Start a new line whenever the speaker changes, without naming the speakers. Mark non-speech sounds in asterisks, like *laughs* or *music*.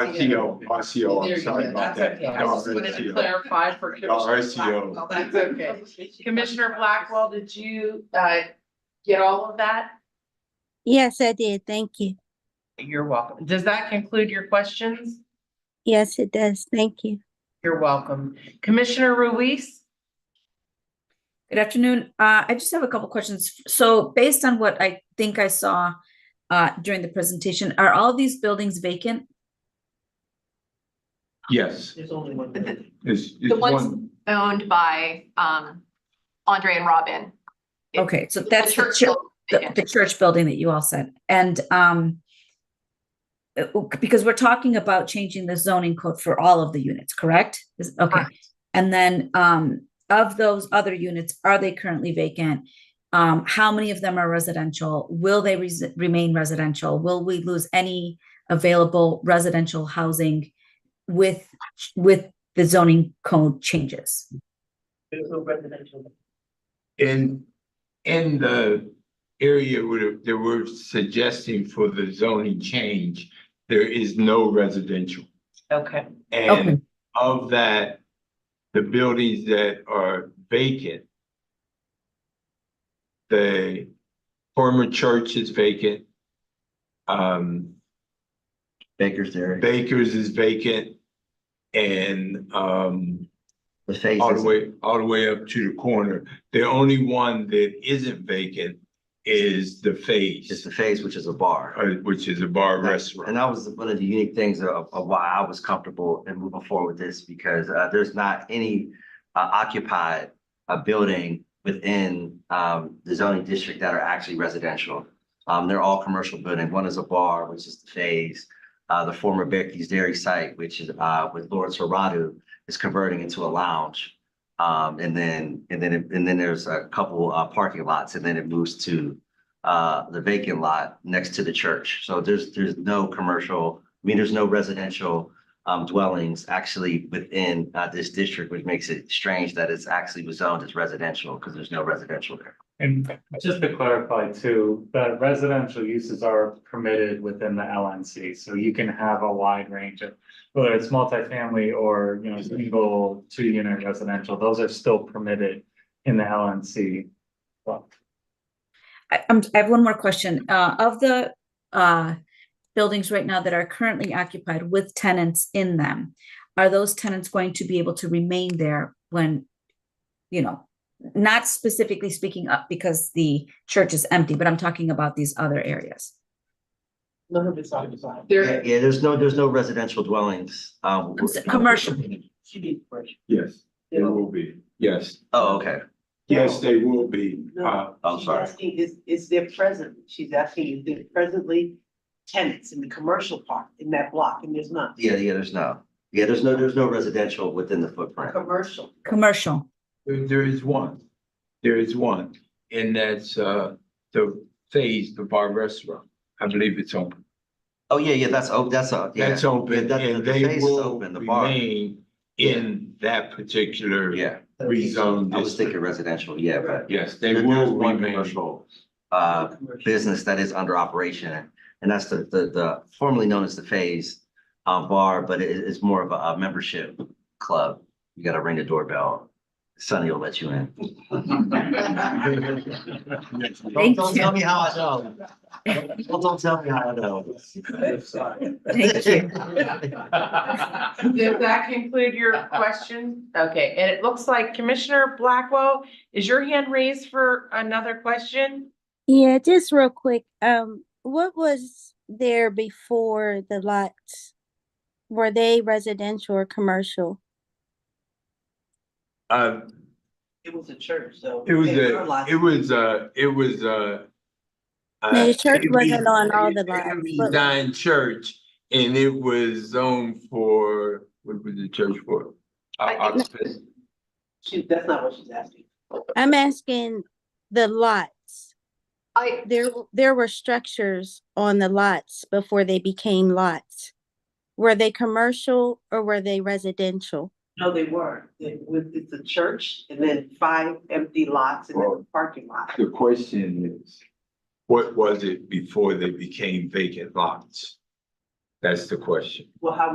On CO, on CO, I'm sorry about that.
That's okay. I just
No,
wanted to
CO.
clarify for
No,
Commissioner.
RCO,
That's okay. Commissioner Blackwell, did you uh get all of that?
Yes, I did. Thank you.
You're welcome. Does that conclude your questions?
Yes, it does. Thank you.
You're welcome. Commissioner Ruiz?
Good afternoon. Uh, I just have a couple questions. So based on what I think I saw uh, during the presentation, are all these buildings vacant?
yes,
There's only one.
is, is
The ones-
one,
owned by um Andre and Robin.
Okay, so
The
that's the
church
church,
building,
the, the church building that you all said, and um. uh, Because we're talking about changing the zoning code for all of the units, correct? Is- Okay, and then um of those other units, are they currently vacant? Um, how many of them are residential? Will they res- remain residential? Will we lose any available residential housing? With with the zoning code changes?
in, in the area where they were suggesting for the zoning change, there is no residential.
Okay,
Okay.
And of that, the buildings that are vacant, the former church is vacant. Um,
Baker's Dairy,
Baker's is vacant. And, um,
the face.
all the way, all the way up to the corner. The only one that isn't vacant is the
It's
Phase,
the phase, which is a bar.
uh, which is a bar restaurant.
And that was one of the unique things of, of why I was comfortable in moving forward with this, because, uh, there's not any, uh, occupied, uh, building within, um, the zoning district that are actually residential. Um, they're all commercial buildings. One is a bar, which is the phase, uh, the former Baker's Dairy site, which is, uh, with Lawrence Serrano, is converting into a lounge. Um, and then, and then, and then there's a couple, uh, parking lots, and then it moves to, uh, the vacant lot next to the church. So there's, there's no commercial, I mean, there's no residential um, dwellings actually within, uh, this district, which makes it strange that it's actually was zoned as residential because there's no residential there.
And just to clarify too, that residential uses are permitted within the LNC, so you can have a wide range of. Whether it's multifamily or, you know, single, two unit residential, those are still permitted in the LNC. Well,
I, I'm, I have one more question. Uh, of the, uh, buildings right now that are currently occupied with tenants in them, are those tenants going to be able to remain there when, you know, not specifically speaking up because the church is empty, but I'm talking about these other areas.
none of it's on design.
Yeah,
There,
yeah, there's no, there's no residential dwellings. Um,
I'm s- Commercial,
Yes, they will be, yes.
Oh, okay.
Yes, they will be.
No.
Uh,
I'm
She's
sorry.
asking, Is, is there present, she's asking, is there presently tenants in the commercial part in that block, and there's not
Yeah, yeah, there's no, yeah, there's no, there's no residential within the footprint.
commercial.
commercial.
there- there is one, there is one, and that's, uh, the Phase, the bar restaurant. I believe it's open.
Oh, yeah, yeah, that's, oh, that's, uh, yeah.
That's
Yeah,
open,
that-
and
the
they
phase is
will
open, the bar.
remain in that particular
Yeah,
rezoned
I was
district.
thinking residential, yeah, but.
Yes, they
There- there's
will
one
remain.
commercial, Uh,
Commercial.
business that is under operation, and that's the, the, the formerly known as the Phase uh, Bar, but it is more of a, a membership club. You gotta ring the doorbell, Sonny will let you in.
Thank
Don't
you.
tell me how I
*laughs*
know. Don't don't tell me how I know.
*laughs* Thank you.
does that conclude your question? Okay, and it looks like Commissioner Blackwell, is your hand raised for another question?
Yeah, just real quick. Um, what was there before the lots? Were they residential or commercial?
Uh,
It was a church, so.
It was
they were
a,
lots
it was a, it was a.
No, the church
uh,
wasn't on all the
it
lines,
was
but-
Zion church and it was zoned for, what was the church for? Uh,
I think-
occupancy.
She, that's not what she's asking.
I'm asking the lots.
I,
There, w- there were structures on the lots before they became lots. Were they commercial or were they residential?
No, they weren't. It was, it's a church and then five empty lots and then
Well-
a parking lot.
The question is, what was it before they became vacant lots?
That's the question.
Well, how